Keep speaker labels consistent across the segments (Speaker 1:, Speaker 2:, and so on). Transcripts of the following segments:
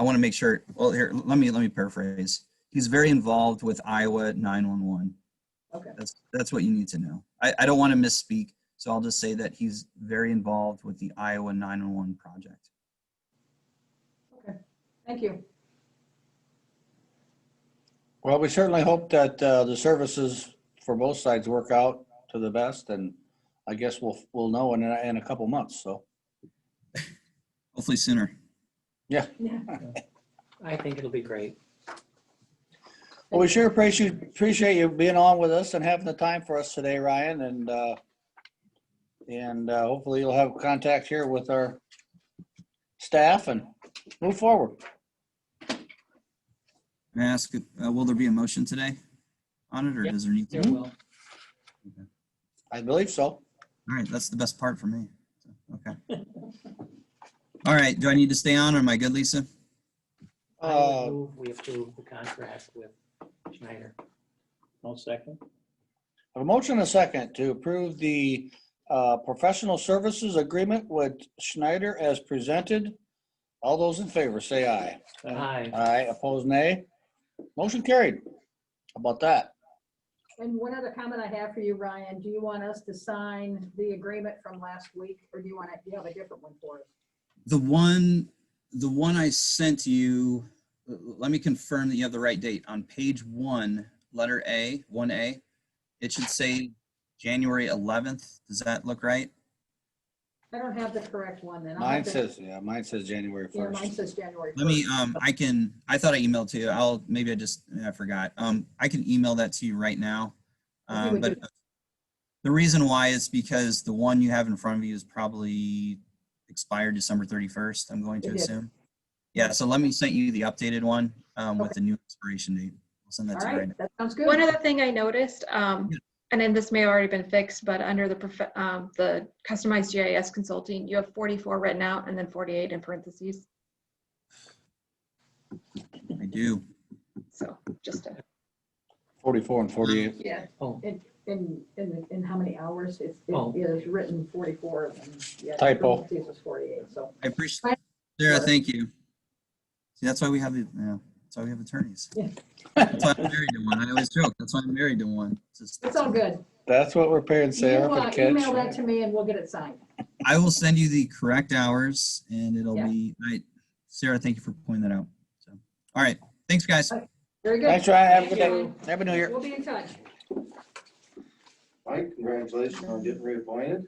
Speaker 1: I want to make sure. Well, here, let me let me paraphrase. He's very involved with Iowa 911.
Speaker 2: Okay.
Speaker 1: That's that's what you need to know. I, I don't want to misspeak, so I'll just say that he's very involved with the Iowa 911 project.
Speaker 2: Thank you.
Speaker 3: Well, we certainly hope that uh, the services for both sides work out to the best, and I guess we'll, we'll know in, a- in a couple months, so.
Speaker 1: Hopefully sooner.
Speaker 2: Yeah.
Speaker 4: I think it'll be great.
Speaker 3: Well, we sure appreciate, appreciate you being on with us and having the time for us today, Ryan, and, uh, and uh, hopefully you'll have contact here with our staff and move forward.
Speaker 1: May I ask, uh, will there be a motion today on it, or
Speaker 4: Yeah.
Speaker 1: does there need to?
Speaker 5: Hmm?
Speaker 4: There
Speaker 1: be? All
Speaker 4: will.
Speaker 3: I believe so.
Speaker 1: right, that's the best part for me. Okay. All right, do I need to stay on, or am I good, Lisa?
Speaker 4: I would
Speaker 3: Uh,
Speaker 4: move We approve the contract with Schneider.
Speaker 5: I'll second.
Speaker 3: A motion and a second to approve the uh, professional services agreement with Schneider as presented. All those in favor, say aye.
Speaker 5: Uh,
Speaker 4: Aye.
Speaker 3: Aye, opposed, nay. Motion carried. How about that?
Speaker 2: And one other comment I have for you, Ryan, do you want us to sign the agreement from last week or do you want to, you have a different one for us?
Speaker 1: The one, the one I sent you, l- l- let me confirm that you have the right date. On page one, letter A, one A, it should say January eleventh. Does that look right?
Speaker 2: I don't have the correct one then. I'll have
Speaker 3: Mine
Speaker 2: to-
Speaker 3: says, yeah, mine says January
Speaker 2: Yeah, mine
Speaker 3: 1st.
Speaker 2: says January.
Speaker 1: Let me,
Speaker 2: 1st.
Speaker 1: um, I can, I thought I emailed to you. I'll, maybe I just, I forgot. Um, I can email that to you right now.
Speaker 2: If you
Speaker 1: Um,
Speaker 2: would
Speaker 1: but the reason why is because the one you have in front of you is probably expired December thirty-first, I'm going to
Speaker 2: It is.
Speaker 1: assume. Yeah, so let me send you the updated one, um, with the new expiration date. I'll send
Speaker 2: All
Speaker 1: that to you right
Speaker 2: right,
Speaker 1: now.
Speaker 2: that sounds good.
Speaker 6: One other thing I noticed, um, and then this may have already been fixed, but under the, prof- um, the customized GIS consulting, you have 44 written out and then 48 in parentheses.
Speaker 1: I do.
Speaker 6: So just a
Speaker 3: 44 and 48.
Speaker 2: Yeah,
Speaker 4: Oh,
Speaker 2: in, in, in, in how many hours? It's,
Speaker 4: Oh.
Speaker 2: it is written 44 of them. Yeah,
Speaker 3: Typo.
Speaker 2: parentheses is 48, so.
Speaker 1: I appreciate,
Speaker 2: Bye.
Speaker 1: Sarah, thank you. See, that's why we have, the yeah, that's why we have attorneys.
Speaker 2: Yeah.
Speaker 1: That's why I'm married to one. I always joke, that's why I'm married to one. It's just-
Speaker 2: It's all good.
Speaker 3: That's what we're paying
Speaker 2: You
Speaker 3: Sarah for
Speaker 2: uh, Email that
Speaker 3: kids.
Speaker 2: to me and we'll get it signed.
Speaker 1: I will send you the correct hours and it'll
Speaker 2: Yeah.
Speaker 1: be, I, Sarah, thank you for pointing that out. So, all right, thanks, guys.
Speaker 2: Very good.
Speaker 3: Thanks, Ryan. Have a good
Speaker 2: Thank
Speaker 3: day. Happy New Year.
Speaker 2: We'll be in touch.
Speaker 7: Mike, congratulations on getting reappointed.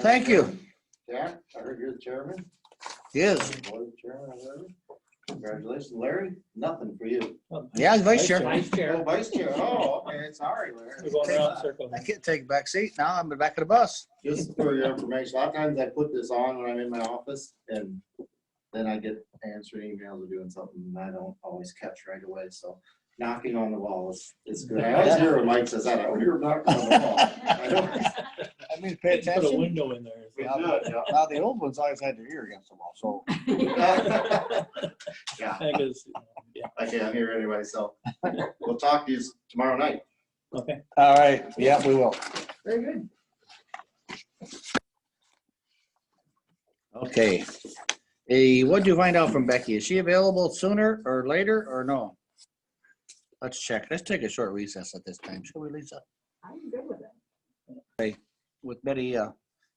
Speaker 3: Thank you.
Speaker 7: Jack, I heard you're the chairman.
Speaker 3: Yes.
Speaker 7: Was chairman, I heard. Congratulations, Larry. Nothing for you.
Speaker 3: Yeah, he's vice chair.
Speaker 4: Vice
Speaker 7: Oh,
Speaker 4: Chair.
Speaker 7: vice chair. Oh, okay, sorry, Larry.
Speaker 5: We're going around in circles.
Speaker 3: I can't take a back seat now. I'm in the back of the bus.
Speaker 7: Just for your information, a lot of times I put this on when I'm in my office and then I get answering emails or doing something and I don't always catch right away, so knocking on the wall is, is good. I always hear when Mike says that, I hear knocking on the wall. I don't-
Speaker 3: I mean, pay
Speaker 5: Put a
Speaker 3: attention.
Speaker 5: window in there.
Speaker 7: We should, yeah.
Speaker 3: Now, the old ones always had their ear against the wall, so.
Speaker 7: Yeah,
Speaker 5: I guess, yeah,
Speaker 7: I can't hear anyway, so we'll talk to you tomorrow night.
Speaker 5: okay.
Speaker 3: All right. Yeah, we will.
Speaker 2: Very good.
Speaker 3: Okay. Eh, what'd you find out from Becky? Is she available sooner or later or no? Let's check. Let's take a short recess at this time, shall we, Lisa?
Speaker 2: I'm good with it.
Speaker 3: With Betty uh,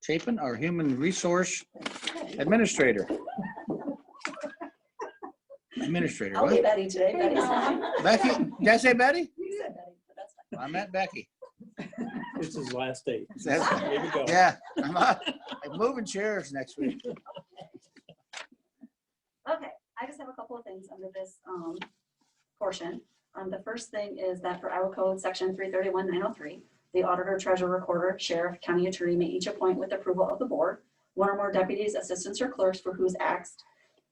Speaker 3: Chapin, our Human Resource Administrator. Administrator,
Speaker 8: I'll be
Speaker 3: what?
Speaker 8: Betty today.
Speaker 2: Hey,
Speaker 8: Betty's
Speaker 2: Mom.
Speaker 8: fine.
Speaker 3: Becky, did I say Betty?
Speaker 8: You said Betty, but that's fine.
Speaker 3: I meant Becky.
Speaker 5: It's his last day.
Speaker 3: That's-
Speaker 5: Here we go.
Speaker 3: Yeah, I'm uh, I'm moving chairs next week.
Speaker 8: Okay, I just have a couple of things under this um, portion. Um, The first thing is that for Iowa Code, Section 331-903, the auditor, treasurer, recorder, sheriff, county attorney may each appoint with approval of the board, one or more deputies, assistants, or clerks for whose acts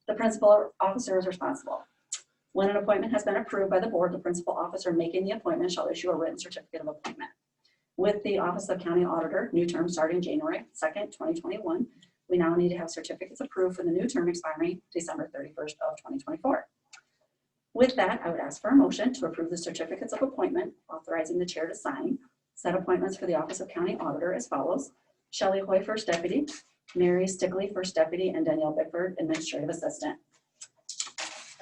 Speaker 8: the principal or officer is responsible. When an appointment has been approved by the board, the principal officer making the appointment shall issue a written certificate of appointment. With the Office of County Auditor, new term starting January 2nd, 2021, we now need to have certificates approved for the new term expiring December 31st of 2024. With that, I would ask for a motion to approve the certificates of appointment, authorizing the chair to sign. Set appointments for the Office of County Auditor as follows. Shelley Hoy, First Deputy, Mary Stickley, First Deputy, and Danielle Bickford, Administrative Assistant.